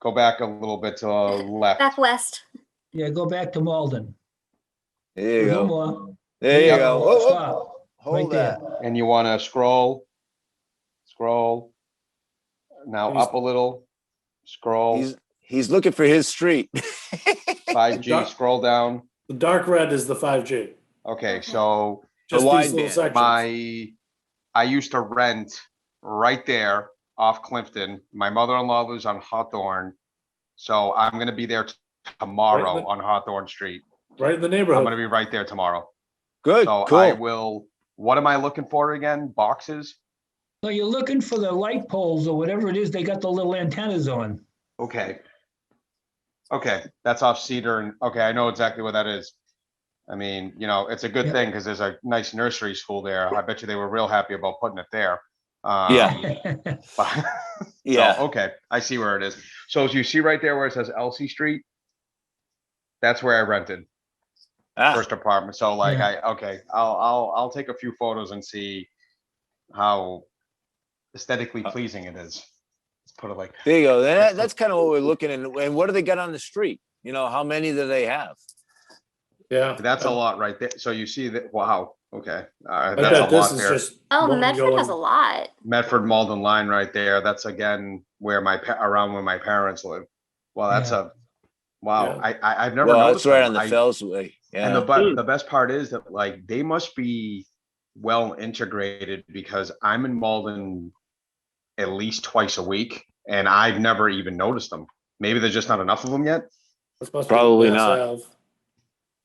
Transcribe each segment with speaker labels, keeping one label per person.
Speaker 1: Go back a little bit to the left.
Speaker 2: back west.
Speaker 3: Yeah, go back to Malden.
Speaker 4: There you
Speaker 3: No
Speaker 4: go.
Speaker 3: more.
Speaker 4: There you
Speaker 1: Yeah.
Speaker 4: go. Whoa, whoa,
Speaker 3: Stop. Right
Speaker 4: Hold
Speaker 3: there.
Speaker 4: that.
Speaker 1: And you want to scroll, scroll. Now up a little, scroll,
Speaker 4: He's, he's looking for his street.
Speaker 1: 5G,
Speaker 5: Dark-
Speaker 1: scroll down.
Speaker 5: The dark red is the five G.
Speaker 1: Okay,
Speaker 2: Okay.
Speaker 1: so
Speaker 5: Just these little
Speaker 4: wideband,
Speaker 5: sections.
Speaker 1: my, I used to rent right there off Clifton. My mother-in-law lives on Hawthorne. So I'm going to be there t- tomorrow
Speaker 5: Right,
Speaker 1: on Hawthorne Street.
Speaker 5: Right in the
Speaker 1: I'm going to
Speaker 5: neighborhood.
Speaker 1: be right there tomorrow.
Speaker 4: Good,
Speaker 1: So Oh, I
Speaker 4: cool.
Speaker 1: will, what am I looking for again? Boxes?
Speaker 3: So you're looking for the light poles or whatever it is, they got the little antennas on.
Speaker 1: Okay. Okay, that's off Cedar and, okay, I know exactly what that is. I mean, you know, it's a good
Speaker 3: Yeah.
Speaker 1: thing because there's a nice nursery school there. I bet you they were real happy about putting it there. Uh,
Speaker 4: Yeah.
Speaker 1: but- So,
Speaker 4: Yeah,
Speaker 1: okay, I see where it is. So as you see right there where it says Elsie Street, that's where I rented
Speaker 4: Ah,
Speaker 1: first apartment. So like
Speaker 3: Yeah.
Speaker 1: I, okay, I'll, I'll, I'll take a few photos and see how aesthetically
Speaker 4: Uh,
Speaker 1: pleasing it is. Let's put it like,
Speaker 4: there you go. That, that's kind of what we're looking at. And what do they got on the street? You know, how many do they have?
Speaker 5: Yeah.
Speaker 1: that's a lot right there. So you see that, wow, okay.
Speaker 5: Um, I
Speaker 1: Uh,
Speaker 5: bet
Speaker 1: that's a
Speaker 5: this
Speaker 1: lot
Speaker 5: is
Speaker 1: there.
Speaker 5: just.
Speaker 2: Oh,
Speaker 5: one
Speaker 2: Medford has a
Speaker 5: going-
Speaker 2: lot.
Speaker 1: Medford Malden line right there. That's again where my, pa- around where my parents live. Well, that's
Speaker 3: Yeah.
Speaker 1: a, wow,
Speaker 5: Yeah.
Speaker 1: I, I, I've never
Speaker 4: Well, it's
Speaker 1: noticed.
Speaker 4: right
Speaker 1: that.
Speaker 4: on the
Speaker 1: I-
Speaker 4: Fellsway.
Speaker 1: And the
Speaker 4: Yeah,
Speaker 1: but the best part is that like they must be well integrated because I'm in Malden at least twice a week and I've never even noticed them. Maybe there's just not enough of them yet.
Speaker 5: this must be
Speaker 4: Probably
Speaker 5: Mass
Speaker 4: not.
Speaker 5: Ave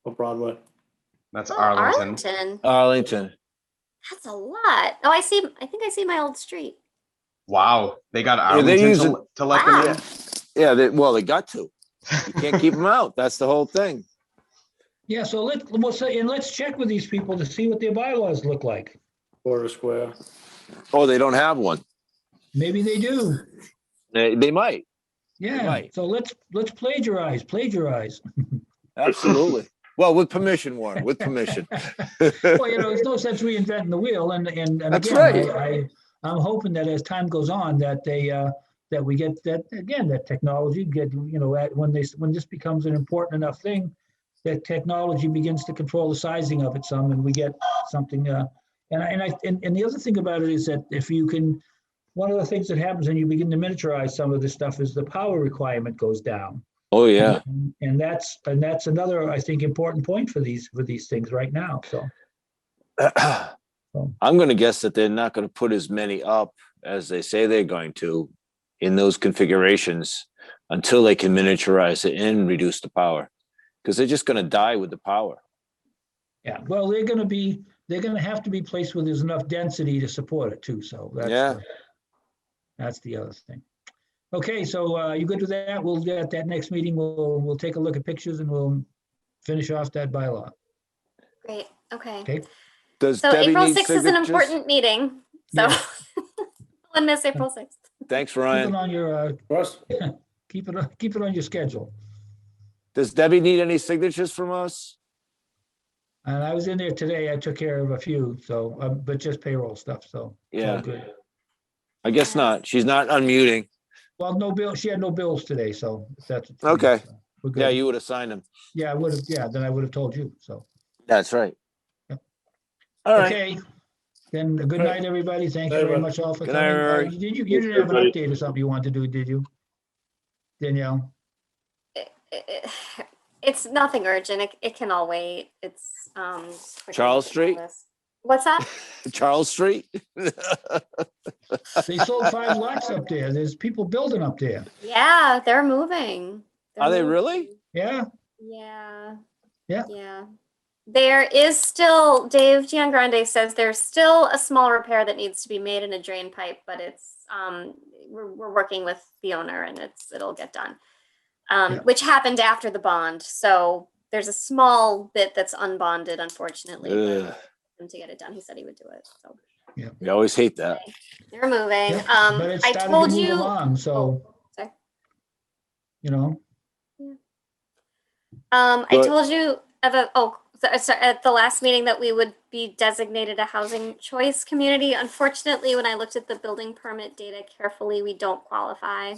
Speaker 5: Or Broadway.
Speaker 1: That's
Speaker 2: Oh,
Speaker 1: Arlington.
Speaker 2: Arlington.
Speaker 4: Arlington.
Speaker 2: That's a lot. Oh, I see. I think I see my old street.
Speaker 1: Wow, they got
Speaker 4: Yeah, they
Speaker 1: Arlington
Speaker 4: use
Speaker 1: to,
Speaker 4: it-
Speaker 1: let- to let them
Speaker 2: Wow.
Speaker 1: in.
Speaker 4: Yeah, they, well, they got to. You can't keep them out. That's the whole thing.
Speaker 3: Yeah, so let, we'll say, and let's check with these people to see what their bylaws look like.
Speaker 5: Quarter square.
Speaker 4: Oh, they don't have one.
Speaker 3: Maybe they do.
Speaker 4: They, they might.
Speaker 3: Yeah,
Speaker 4: Right.
Speaker 3: so let's, let's plagiarize, plagiarize.
Speaker 4: Absolutely. Well, with permission, Warren, with permission.
Speaker 3: Well, you know, there's no sense reinventing the wheel and, and, and
Speaker 4: That's
Speaker 3: again,
Speaker 4: right.
Speaker 3: I, I- I'm hoping that as time goes on, that they, uh, that we get that, again, that technology get, you know, at, when they, s- when this becomes an important enough thing, that technology begins to control the sizing of it some, and we get something, uh, and I, and I, and, and the other thing about it is that if you can, one of the things that happens when you begin to miniaturize some of this stuff is the power requirement goes down.
Speaker 4: Oh, yeah.
Speaker 3: And- And that's, and that's another, I think, important point for these, for these things right now, so.
Speaker 4: I'm going to guess that they're not going to put as many up as they say they're going to in those configurations until they can miniaturize it and reduce the power because they're just going to die with the power.
Speaker 3: Yeah, well, they're gonna be, they're gonna have to be placed where there's enough density to support it too, so that's.
Speaker 4: Yeah.
Speaker 3: the- That's the other thing. Okay, so uh, you good with that? We'll, at that next meeting, we'll, we'll take a look at pictures and we'll finish off that bylaw.
Speaker 2: Great. Okay.
Speaker 3: Okay.
Speaker 4: Does
Speaker 2: So
Speaker 4: Debbie
Speaker 2: April
Speaker 4: need
Speaker 2: 6th is an
Speaker 4: signatures?
Speaker 2: important meeting. So
Speaker 3: Yeah.
Speaker 2: I miss April 6th.
Speaker 4: Thanks,
Speaker 3: Keep it
Speaker 4: Ryan.
Speaker 3: on your, uh,
Speaker 5: Russ,
Speaker 3: keep it, on- keep it on your schedule.
Speaker 4: Does Debbie need any signatures from us?
Speaker 3: And I was in there today, I took care of a few, so, uh, but just payroll stuff, so. it's all
Speaker 4: Yeah,
Speaker 3: good.
Speaker 4: I guess not. She's not unmuting.
Speaker 3: Well, no bill, she had no bills today, so if that's. what you need,
Speaker 4: Okay.
Speaker 3: so We're
Speaker 4: Yeah,
Speaker 3: good.
Speaker 4: you would have signed them.
Speaker 3: Yeah, I would have, yeah, then I would have told you, so.
Speaker 4: That's right.
Speaker 3: Yep.
Speaker 4: All right.
Speaker 3: Okay, then uh, good
Speaker 5: All right.
Speaker 3: night, everybody. Thank
Speaker 5: Night,
Speaker 3: you very
Speaker 5: everyone.
Speaker 3: much all for
Speaker 4: Good
Speaker 3: coming.
Speaker 4: night,
Speaker 3: Uh,
Speaker 4: everybody.
Speaker 3: Did you, you didn't have an update or something you wanted to do, did you? Danielle?
Speaker 2: It's nothing urgent. It, it can all wait. It's um. quick
Speaker 4: Charles
Speaker 2: meeting
Speaker 4: Street?
Speaker 2: on this. What's that?
Speaker 4: Charles Street.
Speaker 3: They sold five lots up there. There's people building up there.
Speaker 2: Yeah, they're moving. They're
Speaker 4: Are they
Speaker 2: moving.
Speaker 4: really?
Speaker 3: Yeah,
Speaker 2: Yeah.
Speaker 3: Yeah.
Speaker 2: Yeah. There is still, Dave Giangrande says there's still a small repair that needs to be made in a drain pipe, but it's, um, we're, we're working with the owner and it's, it'll get done. Um,
Speaker 3: Yeah.
Speaker 2: which happened after the bond, so there's a small bit that's unbonded unfortunately. but
Speaker 4: Ugh,
Speaker 2: Him to get it done, he said he would do it, so
Speaker 4: We always hate that.
Speaker 2: they're moving.
Speaker 3: yeah,
Speaker 2: Um,
Speaker 3: but it's
Speaker 2: I
Speaker 3: starting to
Speaker 2: told
Speaker 3: move
Speaker 2: you. Oh,
Speaker 3: along, So.
Speaker 2: sorry.
Speaker 3: You know,
Speaker 2: Um, I
Speaker 4: But-
Speaker 2: told you of a, oh, so- so at the last meeting that we would be designated a housing choice community. Unfortunately, when I looked at the building permit data carefully, we don't qualify.